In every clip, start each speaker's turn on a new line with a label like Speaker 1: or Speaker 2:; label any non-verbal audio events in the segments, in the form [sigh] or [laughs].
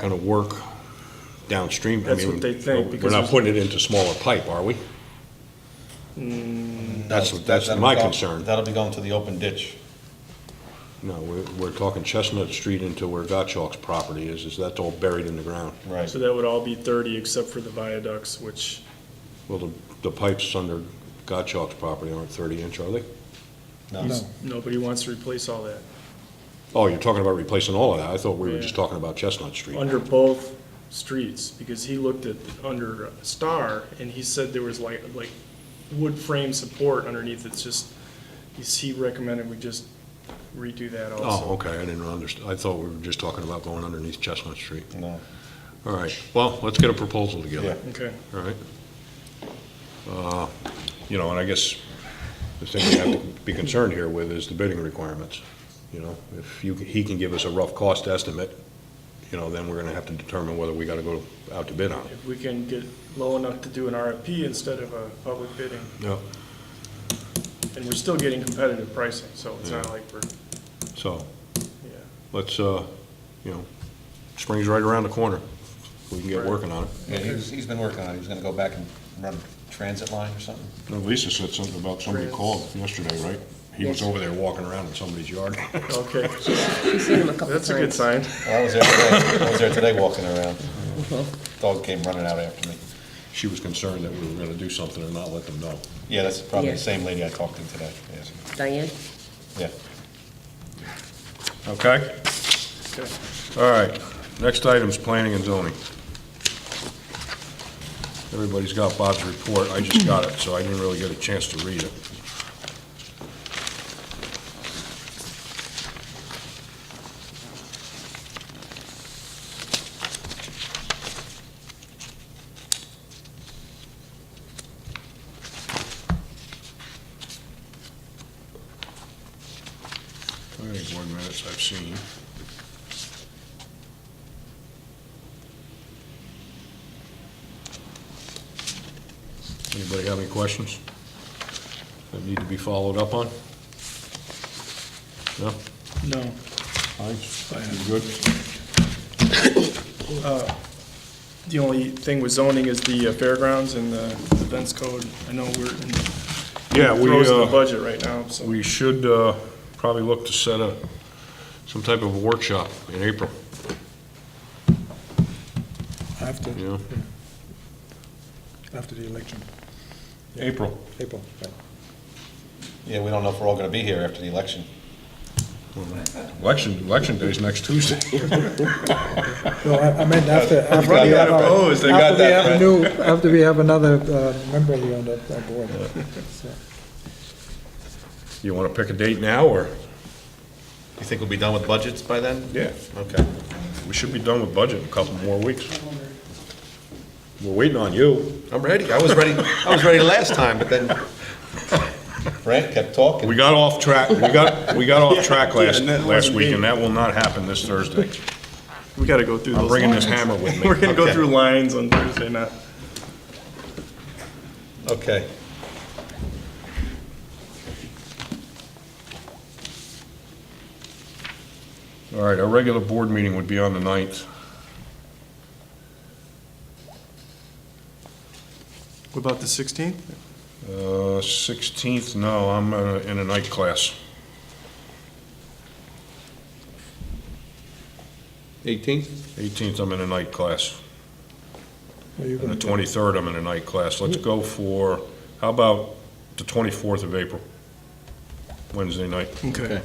Speaker 1: going to work downstream? I
Speaker 2: That's
Speaker 1: mean,
Speaker 2: what they think,
Speaker 1: We're
Speaker 2: because
Speaker 1: not
Speaker 2: it's-
Speaker 1: putting it into smaller pipe, are we? That's, that's
Speaker 3: That'll
Speaker 1: my
Speaker 3: be going-
Speaker 1: concern.
Speaker 3: That'll be going to the open ditch.
Speaker 1: No, we're, we're talking Chestnut Street into where Gottschalk's property is, is that's all buried in the ground.
Speaker 3: Right.
Speaker 2: So that would all be thirty except for the viaducts, which,
Speaker 1: Well, the, the pipes under Gottschalk's property aren't thirty inch, are they?
Speaker 3: No.
Speaker 2: nobody wants to replace all that.
Speaker 1: Oh, you're talking about replacing all of that. I thought we were
Speaker 2: Yeah.
Speaker 1: just talking about Chestnut Street.
Speaker 2: Under both streets, because he looked at, under Star, and he said there was like, like wood frame support underneath, it's just, he's- he recommended we just redo that
Speaker 1: Oh,
Speaker 2: also.
Speaker 1: okay, I didn't understand. I thought we were just talking about going underneath Chestnut Street.
Speaker 3: No,
Speaker 1: All right, well, let's get a proposal together.
Speaker 3: yeah.
Speaker 2: Okay,
Speaker 1: All right. Uh, You know, and I guess the thing we have to be concerned here with is the bidding requirements. You know, if you, he can give us a rough cost estimate, you know, then we're gonna have to determine whether we gotta go out to bid on it.
Speaker 2: if we can get low enough to do an RFP instead of a public bidding,
Speaker 1: Yeah.
Speaker 2: and we're still getting competitive pricing, so it's not like we're,
Speaker 1: So,
Speaker 2: yeah.
Speaker 1: let's, uh, you know, spring's right around the corner. We can get
Speaker 2: Right.
Speaker 1: working on it.
Speaker 3: Yeah, he's, he's been working on it. He was gonna go back and run a transit line or something.
Speaker 1: Lisa said something about somebody
Speaker 2: Chris.
Speaker 1: called yesterday, right? He was
Speaker 4: Yes.
Speaker 1: over there walking around in somebody's yard.
Speaker 2: Okay,
Speaker 4: We've seen him a couple times.
Speaker 2: that's a good sign.
Speaker 3: Well, I was there today, I was there today walking around.
Speaker 4: Uh-huh.
Speaker 3: Dog came running out after me.
Speaker 1: [laughs] She was concerned that we were gonna do something and not let them know.
Speaker 3: Yeah, that's probably the
Speaker 4: Yeah.
Speaker 3: same lady I talked to today, yes,
Speaker 4: Diane?
Speaker 3: yeah.
Speaker 1: Okay?
Speaker 2: Okay.
Speaker 1: All right, next item's planning and zoning. Everybody's got Bob's report, I just got it, so I didn't really get a chance to read it. Planning board minutes I've seen. Anybody have any questions that need to be followed up on? No?
Speaker 2: No.
Speaker 1: Thanks. You good?
Speaker 2: The only thing with zoning is the uh, fairgrounds and the events code. I know we're in the
Speaker 1: Yeah, we,
Speaker 2: throes of the
Speaker 1: uh,
Speaker 2: budget right now, so.
Speaker 1: we should, uh, probably look to set a, some type of a workshop in April,
Speaker 5: After,
Speaker 1: you know?
Speaker 5: after the election,
Speaker 1: April.
Speaker 5: April, right.
Speaker 3: Yeah, we don't know if we're all gonna be here after the election.
Speaker 1: Election, election day's next Tuesday.
Speaker 5: No, I I
Speaker 3: [laughs]
Speaker 5: meant after,
Speaker 3: got that,
Speaker 5: after we have, our-
Speaker 3: Fred. They got
Speaker 5: after we
Speaker 3: that,
Speaker 5: have a
Speaker 3: Fred.
Speaker 5: new, after we have another uh, member here on the uh, board. So,
Speaker 1: [laughs] You wanna pick a date now, or?
Speaker 3: You think we'll be done with budgets by then?
Speaker 1: Yeah.
Speaker 3: Okay.
Speaker 1: We should be done with budget in a couple more weeks. We're waiting on you.
Speaker 3: I'm ready, I was ready, I was ready last time, but then Frank kept talking.
Speaker 1: We got off track, we got, we got [laughs] off track last,
Speaker 2: and that
Speaker 1: last
Speaker 2: wasn't
Speaker 1: week,
Speaker 2: me.
Speaker 1: and that will not happen this Thursday.
Speaker 2: We gotta go through
Speaker 1: I'm
Speaker 2: those
Speaker 1: bringing this
Speaker 2: lines.
Speaker 1: hammer
Speaker 2: [laughs]
Speaker 1: with me.
Speaker 2: We're gonna go
Speaker 3: Okay.
Speaker 2: through lines on Thursday night.
Speaker 3: Okay.
Speaker 1: All right, our regular board meeting would be on the 9th.
Speaker 2: What about the sixteenth?
Speaker 1: Uh, 16th, no, I'm uh, in a night class.
Speaker 3: 18th?
Speaker 1: 18th, I'm in a night class.
Speaker 5: Are you
Speaker 1: And the
Speaker 5: going to,
Speaker 1: 23rd, I'm in a night class. Let's go for, how about the 24th of April? Wednesday night.
Speaker 2: Okay.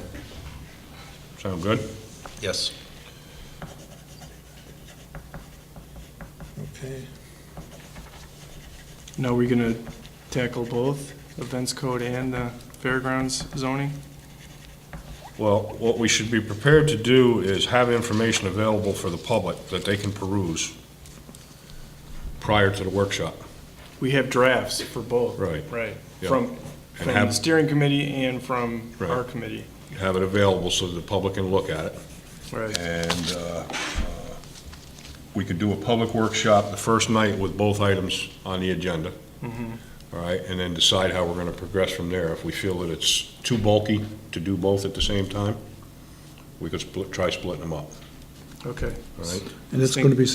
Speaker 1: Sound good?
Speaker 3: Yes.
Speaker 5: okay,
Speaker 2: Now, we're gonna tackle both events code and the fairgrounds zoning?
Speaker 1: Well, what we should be prepared to do is have information available for the public that they can peruse prior to the workshop.
Speaker 2: We have drafts for both.
Speaker 1: Right.
Speaker 2: Right.
Speaker 1: Yeah.
Speaker 2: From,
Speaker 1: And
Speaker 2: from the
Speaker 1: have-
Speaker 2: steering committee and from our
Speaker 1: Right.
Speaker 2: committee.
Speaker 1: Have it available so the public can look at it.
Speaker 2: Right.
Speaker 1: And uh, we could do a public workshop the first night with both items on the agenda. All right, and then decide how we're going to progress from there. If we feel that it's too bulky to do both at the same time, we could split, try splitting them up.
Speaker 6: Okay.
Speaker 7: all right?
Speaker 2: And it's going to be